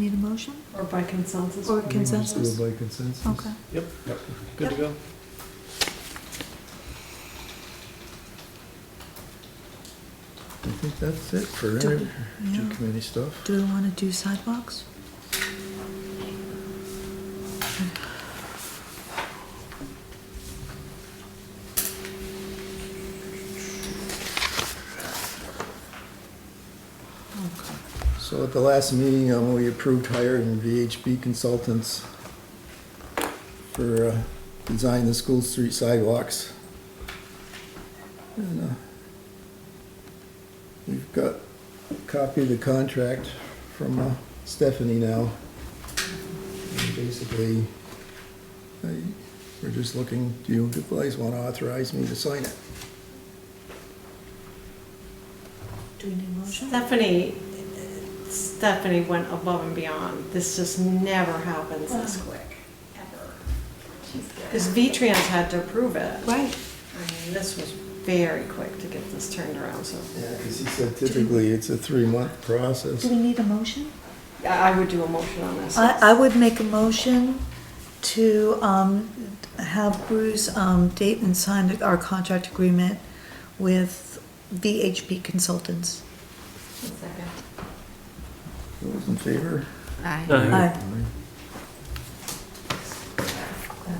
Need a motion Or by consensus? or We can just consensus? Do it by consensus. Okay. Yep, good to go. I think that's it for Do- inter- yeah. committee stuff. Do we want to do sidewalks? So at the last meeting, um, we approved hiring VHB consultants for, uh, design the school street sidewalks. And, uh, we've got a copy of the contract from uh, Stephanie now. And Basically, I, we're just looking, do you guys wanna authorize me to sign it? Do we need a motion? Stephanie, Stephanie went above and beyond. This just never happens this quick, ever. Because V-Trans had to approve it. Right. I mean, this was very quick to get this turned around, so Yeah, because he said typically it's a three-month process. Do we need a motion? I I would do a motion on this. I, I would make a motion to um, have Bruce um, date and sign our contract agreement with VHP Consultants. Those in favor? Aye. That's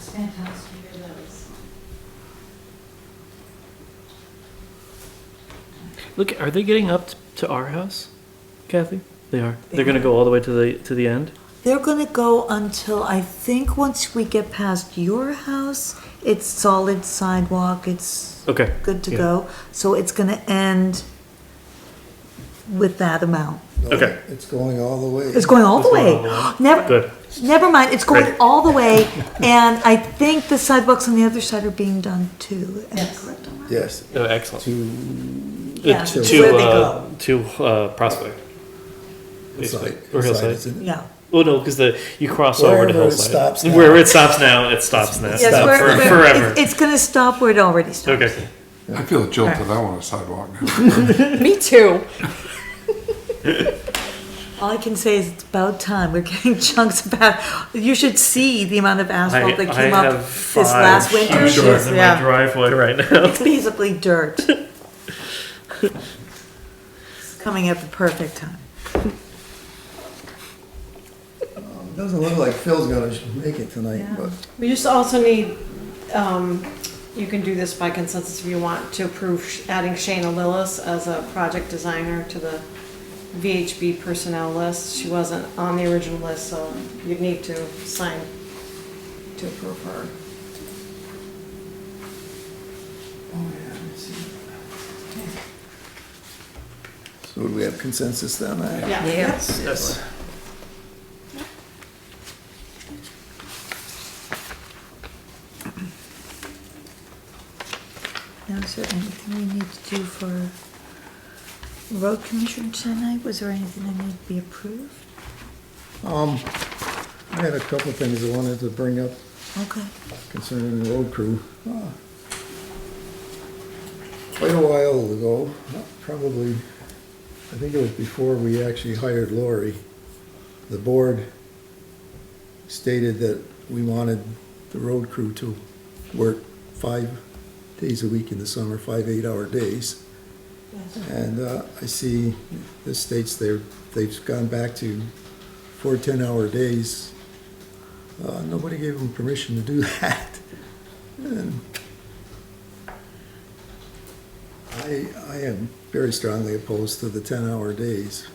fantastic. Look, are they getting up t- to our house, Kathy? They are. They're gonna go all the way to the, to the end? They're gonna go until, I think, once we get past your house, it's solid sidewalk, it's Okay. good to Yeah. go. So it's gonna end with that amount. Okay. It's going all the way. It's going all the It's way. going all Never, Good. never mind, it's going Great. all the way. And I think the sidewalks on the other side are being done too. Am I correct on that? Yes, Oh, excellent. to Yeah, Uh, to to, where they uh, To, uh, Prospect. the site. Basically. Or Hillside. Site, isn't it? Yeah. Oh, no, because the, you cross over to Wherever it Hillside. stops now. Wherever it stops now, it stops now. Yes, Stop where- for- where- Forever. it's- It's gonna stop where it already stopped. Okay. I feel jilted. I want a sidewalk now. Me too. All I can say is it's about time. We're getting chunks about, you should see the amount of asphalt that came up this last winter. huge doors in my Yeah. driveway right now. It's basically dirt. It's Coming at the perfect time. Doesn't look like Phil's gonna make it tonight, but We just also need, um, you can do this by consensus if you want, to approve adding Shayna Lillis as a project designer to the VHB personnel list. She wasn't on the original list, so you'd need to sign to approve her. so do we have consensus then? I- Yeah. Yes. Yes. Now, is there anything we need to do for road commissioner tonight? Was there anything that needed to be approved? Um, I had a couple things I wanted to bring up Okay. concerning the road crew. Ah. Quite a while ago, probably, I think it was before we actually hired Lori, the board stated that we wanted the road crew to work five days a week in the summer, five eight-hour days. And uh, I see this states they're, they've gone back to four 10-hour days uh, nobody gave them permission to do that. And I, I am very strongly opposed to the ten-hour days.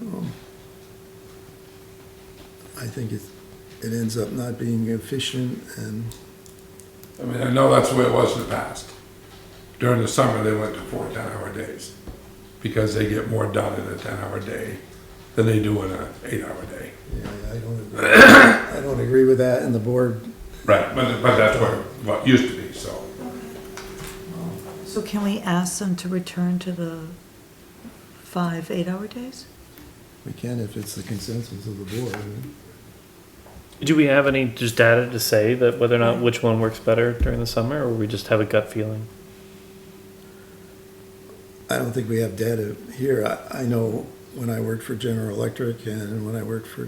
Um, I think it, it ends up not being efficient and, I mean, I know that's the way it was in the past. During the summer, they went to four 10-hour days because they get more done in a 10-hour day than they do in a eight-hour day. yeah, I don't, agree- I don't agree with that, and the board, Right, but, but that's what, what it used to be, so. So can we ask them to return to the five eight-hour days? we can if it's the consensus of the board. I mean. Do we have any just data to say that whether or not which one works better during the summer, or we just have a gut feeling? I don't think we have data here. I, I know when I worked for General Electric and when I worked for